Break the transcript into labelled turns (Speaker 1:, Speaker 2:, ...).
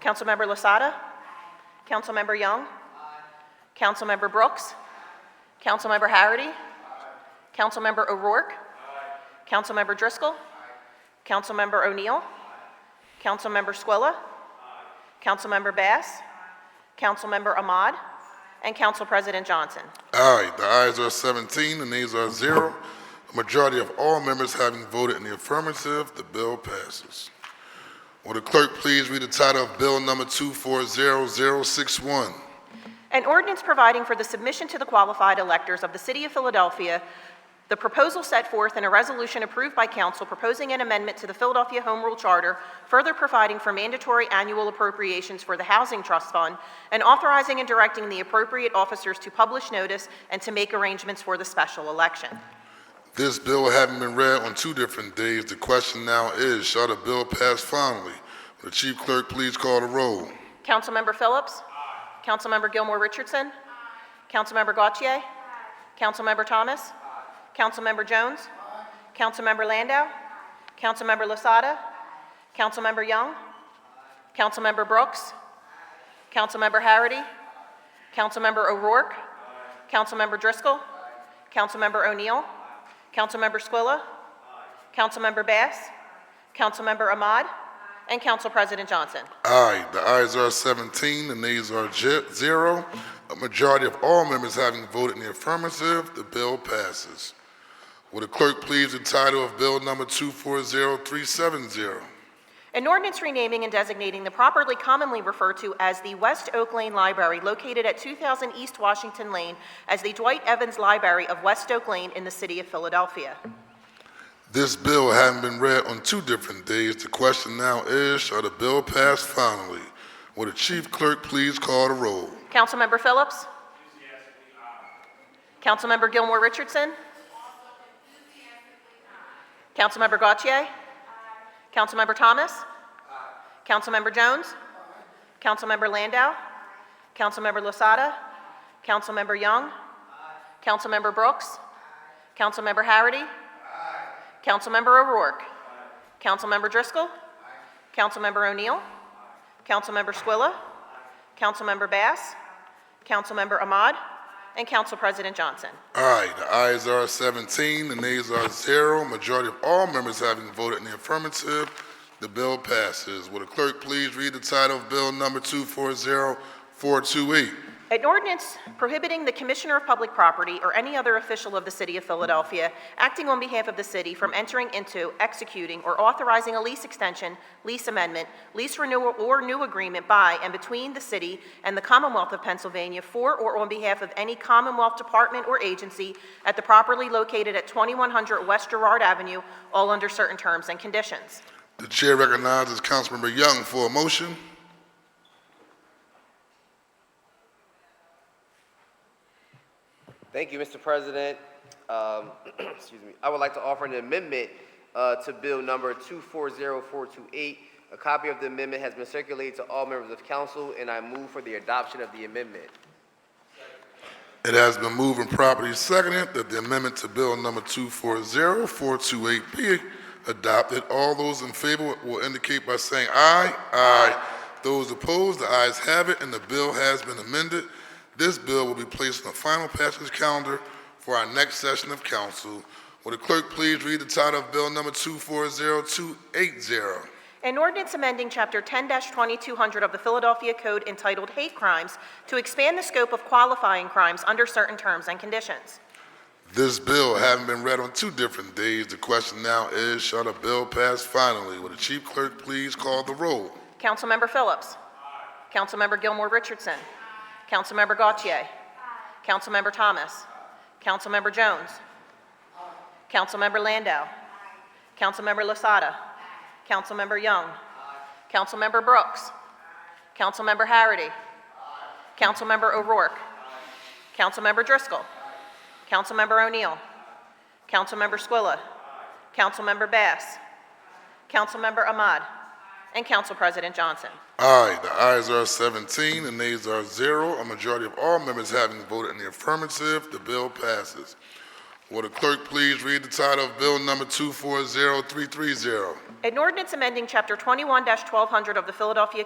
Speaker 1: Councilmember Lasada? Councilmember Young? Councilmember Brooks? Councilmember Harity? Councilmember O'Rourke? Councilmember Driscoll? Councilmember O'Neill? Councilmember Squilla? Councilmember Bass? Councilmember Ahmad? And Council President Johnson.
Speaker 2: Aye, the ayes are 17, the nays are zero. A majority of all members having voted in the affirmative, the bill passes. Will the clerk please read the title of Bill Number 240061?
Speaker 1: An ordinance providing for the submission to the qualified electors of the City of Philadelphia, the proposal set forth in a resolution approved by council proposing an amendment to the Philadelphia Home Rule Charter, further providing for mandatory annual appropriations for the Housing Trust Fund, and authorizing and directing the appropriate officers to publish notice and to make arrangements for the special election.
Speaker 2: This bill having been read on two different days, the question now is, shall the bill pass finally? Will the chief clerk please call the roll?
Speaker 1: Councilmember Phillips? Councilmember Gilmore Richardson? Councilmember Gautier? Councilmember Thomas? Councilmember Jones? Councilmember Landau? Councilmember Lasada? Councilmember Young? Councilmember Brooks? Councilmember Harity? Councilmember O'Rourke? Councilmember Driscoll? Councilmember O'Neill? Councilmember Squilla? Councilmember Bass? Councilmember Ahmad? And Council President Johnson.
Speaker 2: Aye, the ayes are 17, the nays are je- zero. A majority of all members having voted in the affirmative, the bill passes. Will the clerk please read the title of Bill Number 240370?
Speaker 1: An ordinance renaming and designating the properly commonly referred to as the West Oak Lane Library located at 2000 East Washington Lane as the Dwight Evans Library of West Oak Lane in the city of Philadelphia.
Speaker 2: This bill having been read on two different days, the question now is, shall the bill pass finally? Will the chief clerk please call the roll?
Speaker 1: Councilmember Phillips? Councilmember Gilmore Richardson? Councilmember Gautier? Councilmember Thomas? Councilmember Jones? Councilmember Landau? Councilmember Lasada? Councilmember Young? Councilmember Brooks? Councilmember Harity? Councilmember O'Rourke? Councilmember Driscoll? Councilmember O'Neill? Councilmember Squilla? Councilmember Bass, Councilmember Ahmad, and Council President Johnson.
Speaker 2: Aye, the ayes are 17, the nays are zero. Majority of all members having voted in the affirmative, the bill passes. Will the clerk please read the title of Bill Number 240428?
Speaker 1: An ordinance prohibiting the Commissioner of Public Property or any other official of the City of Philadelphia acting on behalf of the city from entering into, executing, or authorizing a lease extension, lease amendment, lease renewal, or new agreement by and between the city and the Commonwealth of Pennsylvania for or on behalf of any Commonwealth department or agency at the property located at 2100 West Gerard Avenue, all under certain terms and conditions.
Speaker 2: The chair recognizes Councilmember Young for a motion.
Speaker 3: Thank you, Mr. President. Um, Excuse me. I would like to offer an amendment uh, to Bill Number 240428. A copy of the amendment has been circulated to all members of council, and I move for the adoption of the amendment.
Speaker 2: It has been moved and properly seconded that the amendment to Bill Number 240428 be adopted. All those in favor will indicate by saying aye. Aye. Those opposed, the ayes have it, and the bill has been amended. This bill will be placed on the final passage calendar for our next session of council. Will the clerk please read the title of Bill Number 240280?
Speaker 1: An ordinance amending Chapter 10-2200 of the Philadelphia Code entitled Hate Crimes to expand the scope of qualifying crimes under certain terms and conditions.
Speaker 2: This bill having been read on two different days, the question now is, shall the bill pass finally? Will the chief clerk please call the roll?
Speaker 1: Councilmember Phillips. Councilmember Gilmore Richardson. Councilmember Gautier. Councilmember Thomas. Councilmember Jones. Councilmember Landau. Councilmember Lasada. Councilmember Young. Councilmember Brooks. Councilmember Harity. Councilmember O'Rourke. Councilmember Driscoll. Councilmember O'Neill. Councilmember Squilla. Councilmember Bass. Councilmember Ahmad. And Council President Johnson.
Speaker 2: Aye, the ayes are 17, the nays are zero. A majority of all members having voted in the affirmative, the bill passes. Will the clerk please read the title of Bill Number 240330?
Speaker 1: An ordinance amending Chapter 21-1200 of the Philadelphia